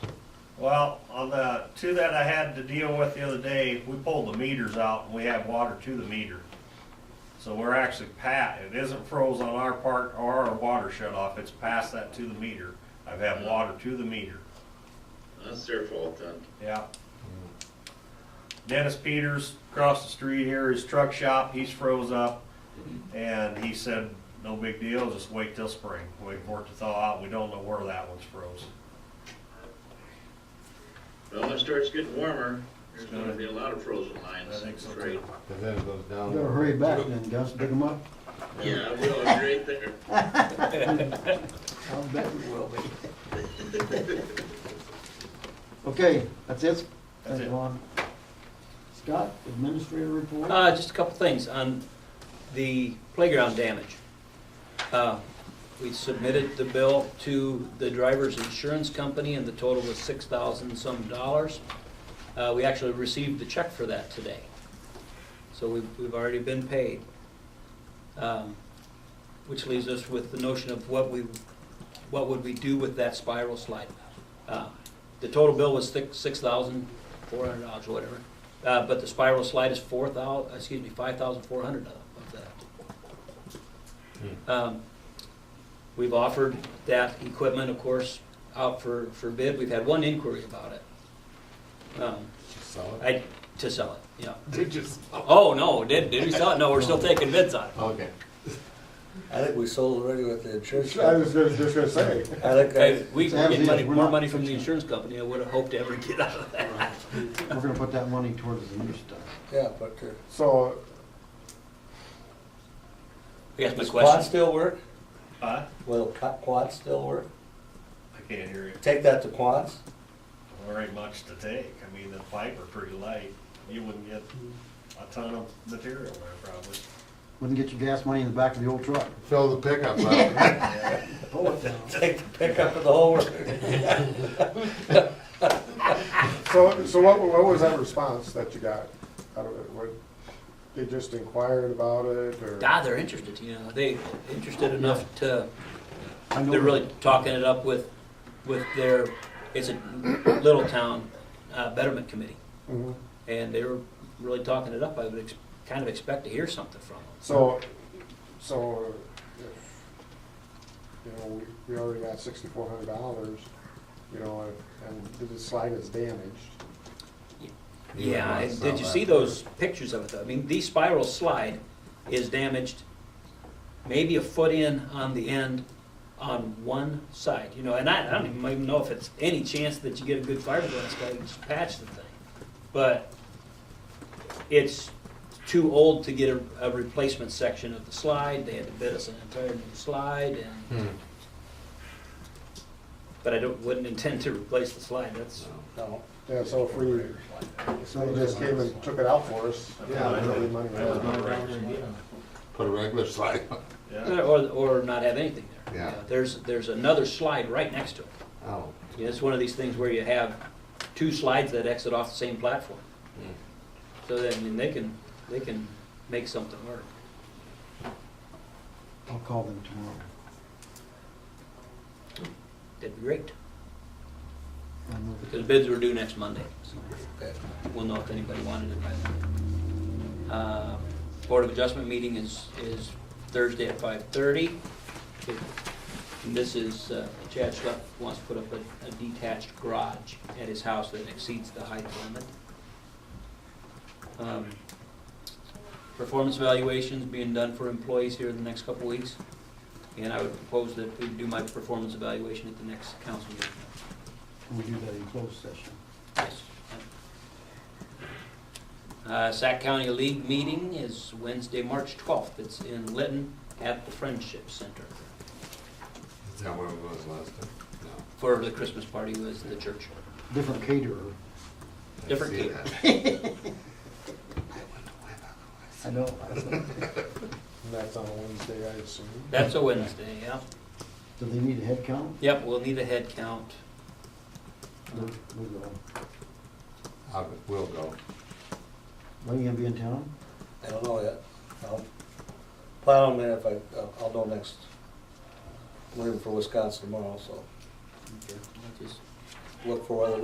Well, on the two that I had to deal with the other day, we pulled the meters out and we have water to the meter. So we're actually pat, it isn't froze on our part or our water shut off, it's past that to the meter. I've had water to the meter, That's their fault then. yeah. Dennis Peters, across the street here, his truck shop, he's froze up. And he said, no big deal, just wait till spring, wait for it to thaw out, we don't know where that one's froze. Well, when it starts getting warmer, there's It's gonna- gonna be a lot of frozen lines, I I'm think so, too. afraid. And then it goes down. You gotta hurry back then, Gus, pick them up. Yeah, I will, it's right there. I'll bet you will be. Okay, that's it? That's Thank it. you, Lon. Scott, administrator report? Uh, just a couple things on the playground damage. Uh, We submitted the bill to the driver's insurance company and the total was six thousand some dollars. Uh, we actually received the check for that today. So we've, we've already been paid. Um, Which leaves us with the notion of what we, what would we do with that spiral slide? Uh, The total bill was six, six thousand four hundred dollars or whatever. Uh, but the spiral slide is four thou, excuse me, five thousand four hundred of of that. Um, We've offered that equipment, of course, out for, for bid. We've had one inquiry about it. Um, Solid. I, to sell it, yeah. They just. Oh, no, did, did we sell it? No, we're still taking bids on it. Okay. I think we sold already with the insurance. I company. was just just gonna say. I think Hey, I, We Sam, get money, we're more not- money from the insurance company I would have hoped to ever get out of that. We're gonna put that money towards the new stuff. yeah, but uh, the. So, Yes, my Quad question. still work? Huh? Will qu- quad still work? I can't hear you. Take that to quads? There ain't much to take. I mean, the pipe are pretty light. You wouldn't get a ton of material there probably. Wouldn't get your gas money in the back of the old truck. Fill the pickup up. Yeah. Pull it down. Take the pickup of the whole work? so, so what, what was that response that you got? I don't know, what, they just inquired about it, or? Ah, they're interested, you know, they interested enough to, I know they're really talking it up with, with their, it's a little town uh, betterment committee. Mhm. And they were really talking it up. I would ex- kind of expect to hear something from them. So, so, if, you know, we, we already got sixty-four hundred dollars, you know, and and the slide is damaged. You Yeah, might and did you sell see that. those pictures of it though? I mean, the spiral slide is damaged maybe a foot in on the end on one side, you know, and I, I don't even- even know if it's any chance that you get a good fiberglass guy to just patch the thing. But it's too old to get a, a replacement section of the slide, they had to bid us an entire new slide and, Hmm. but I don't, wouldn't intend to replace the slide, that's, No. Yeah, so if we, if they just came and took it out for us, yeah, Yeah, I we'd know. be money. I was gonna write this one. Put a regular slide on. Yeah. Or, or not have anything there. Yeah. You know, There's, there's another slide right next to it. Oh. You know, It's one of these things where you have two slides that exit off the same platform. Hmm. So that, I mean, they can, they can make something work. I'll call them tomorrow. That'd be great. I know that- Because bids were due next Monday, so Okay. we'll know if anybody wanted it by then. Uh, Board of Adjustment meeting is, is Thursday at five thirty. And this is, uh, Chad Schlepp wants to put up a- a detached garage at his house that exceeds the height limit. Um, Performance evaluations being done for employees here in the next couple weeks. And I would propose that we do my performance evaluation at the next council meeting. Can we do that in closed session? Yes. Uh, Sac County League meeting is Wednesday, March 12th. It's in Lytton at the Friendship Center. Is that where it was last time? No. For the Christmas party was the church. Different caterer. I Different see key. that. I know. I said, And that's on a Wednesday, I assume. That's a Wednesday, yeah. Do they need a head count? Yep, we'll need a head count. We'll we'll go. I will go. Are you gonna be in town? I don't know yet. I'll Plan on it if I, I'll- I'll know next. Leaving for Wisconsin tomorrow, so Okay, I'll just- look for whether